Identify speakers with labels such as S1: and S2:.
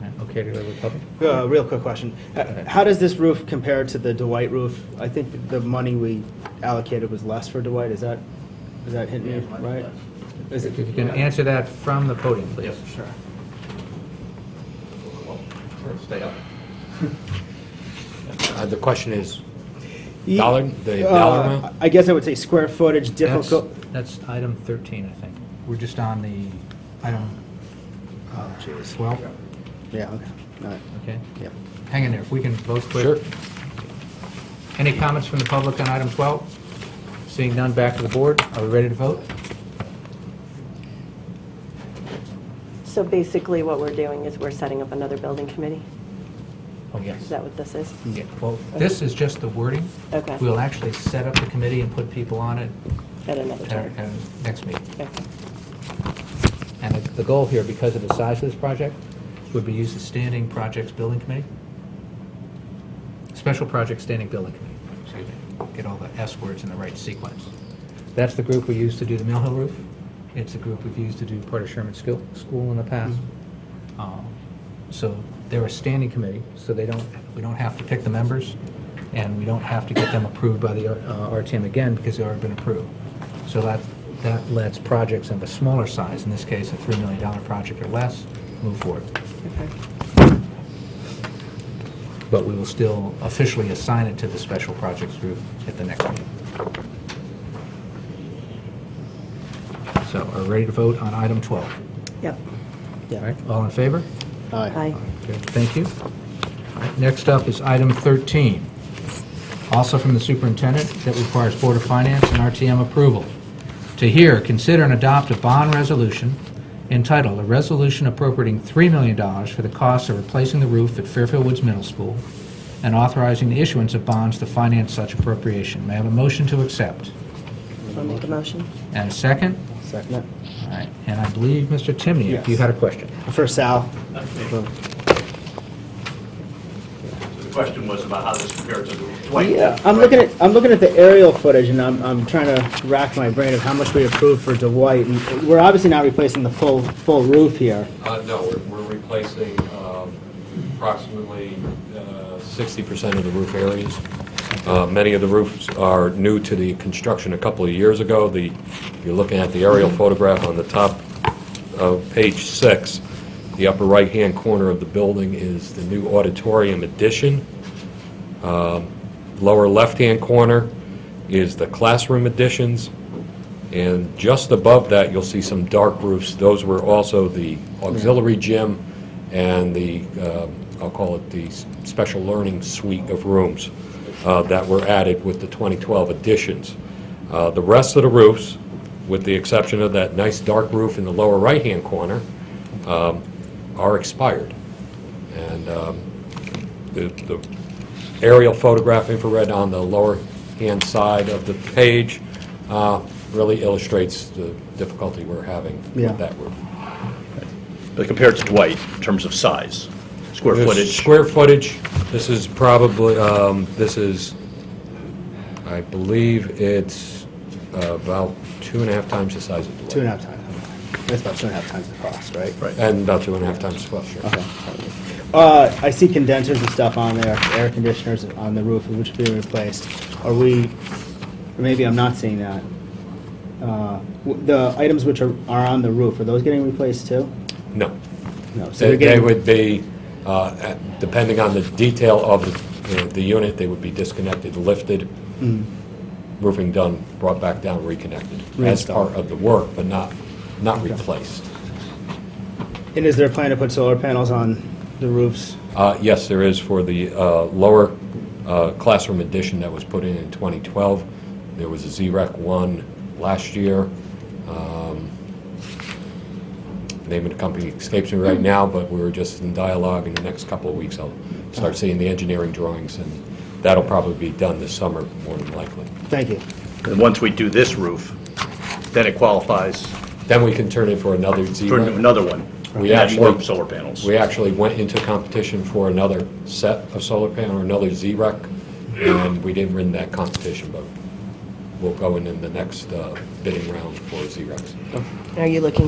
S1: communicating with the public.
S2: Uh, Real quick question. Uh,
S1: ahead.
S2: How does this roof compare to the Dwight roof? I think the money we allocated was less for Dwight, is that, is that hitting me right? Is
S1: If you
S2: it,
S1: can answer that from the podium, please.
S3: Yes, sure. Well, Stay up.
S4: Uh, The question is,
S2: Ye-
S4: dollar, the
S2: Uh,
S4: dollar amount?
S2: I guess I would say square footage,
S1: That's,
S2: difficult,
S1: that's item 13, I think. We're just on the item, uh,
S2: oh, jeez.
S1: well,
S2: Yeah, okay, all right,
S1: okay?
S2: yep.
S1: Hang in there, if we can vote quick.
S4: Sure.
S1: Any comments from the public on item 12? Seeing none, back to the board. Are we ready to vote?
S5: So basically, what we're doing is we're setting up another building committee?
S1: Oh, yes.
S5: Is that what this is?
S1: Yeah, Well, this is just the wording.
S5: Okay.
S1: We'll actually set up the committee and put people on it
S5: At another
S1: at our
S5: time?
S1: at our next meeting.
S5: Okay.
S1: And the- the goal here, because of the size of this project, would be use the standing projects building committee? Special project standing building committee, excuse me. Get all the S words in the right sequence. That's the group we used to do the Mill Hill roof. It's the group we've used to do part of Sherman School, School in the past. Um, So they're a standing committee, so they don't, we don't have to pick the members, and we don't have to get them approved by the uh, RTM again, because they've already been approved. So that, that lets projects of a smaller size, in this case, a $3 million project or less, move forward. But we will still officially assign it to the special projects group at the next meeting. So are we ready to vote on item 12?
S5: Yep.
S1: All right, all in favor?
S2: All right,
S5: Hi.
S1: Okay, Thank you. All right, Next up is item 13, also from the superintendent, that requires Board of Finance and RTM approval. To hear, consider, and adopt a bond resolution entitled, "A Resolution Appropriating $3 Million for the Cost of Replacing the Roof at Fairfield Woods Middle School and Authorizing the Issuance of Bonds to Finance Such Appropriation." May I have a motion to accept?
S5: I'll make a motion.
S1: And a second?
S2: second it.
S1: All right, and I believe, Mr. Timmy, if you
S2: Yes.
S1: had a question.
S2: For Sal,
S3: The question was about how this compared to the Dwight.
S2: Yeah, I'm looking at, I'm looking at the aerial footage, and I'm, I'm trying to rack my brain of how much we approved for Dwight, and we're obviously not replacing the full, full roof here.
S6: Uh, no, we're, we're replacing, um, approximately, uh,
S4: Sixty percent of the roof areas. Uh, Many of the roofs are new to the construction a couple of years ago. The, if you're looking at the aerial photograph on the top of page six, the upper right-hand corner of the building is the new auditorium addition. Um, Lower left-hand corner is the classroom additions. And just above that, you'll see some dark roofs. Those were also the auxiliary gym and the, um, I'll call it the s- special learning suite of rooms uh, that were added with the 2012 additions. Uh, The rest of the roofs, with the exception of that nice dark roof in the lower right-hand corner, um, are expired. And um, the the aerial photograph infrared on the lower-hand side of the page uh, really illustrates the difficulty we're having
S2: Yeah.
S4: with that roof.
S7: But compared to Dwight, in terms of size, square
S4: There's
S7: footage,
S4: Square footage, this is probably, um, this is, I believe it's uh, about two and a half times the size of the
S2: Two and a half times, that's about two and a half times the cost, right?
S7: Right.
S4: And about two and a half times, well, sure.
S2: Okay. Uh, I see condensers and stuff on there, air conditioners on the roof, which are being replaced. Are we, or maybe I'm not seeing that. Uh, w- The items which are, are on the roof, are those getting replaced too?
S4: No.
S2: No. so they're
S4: They they
S2: getting-
S4: would be, uh, at- depending on the detail of the- you know, the unit, they would be disconnected, lifted,
S2: Mm.
S4: roofing done, brought back down, reconnected, as
S2: Reinstalled.
S4: part of the work, but not, not replaced.
S2: And is there a plan to put solar panels on the roofs?
S4: Uh, Yes, there is for the uh, lower uh, classroom addition that was put in in 2012. There was a ZREC 1 last year. Um, Name of the company escapes me right now, but we're just in dialogue. In the next couple of weeks, I'll start seeing the engineering drawings, and that'll probably be done this summer, more than likely.
S2: Thank you.
S7: and once we do this roof, then it qualifies
S4: Then we can turn in for another ZREC.
S7: for another one.
S4: We
S7: and add more
S4: actually-
S7: Solar panels.
S4: We actually went into competition for another set of solar panel, another Z-Rec, and we didn't win that competition, but we'll go in in the next uh, bidding round for Z-Recs.
S5: Are you looking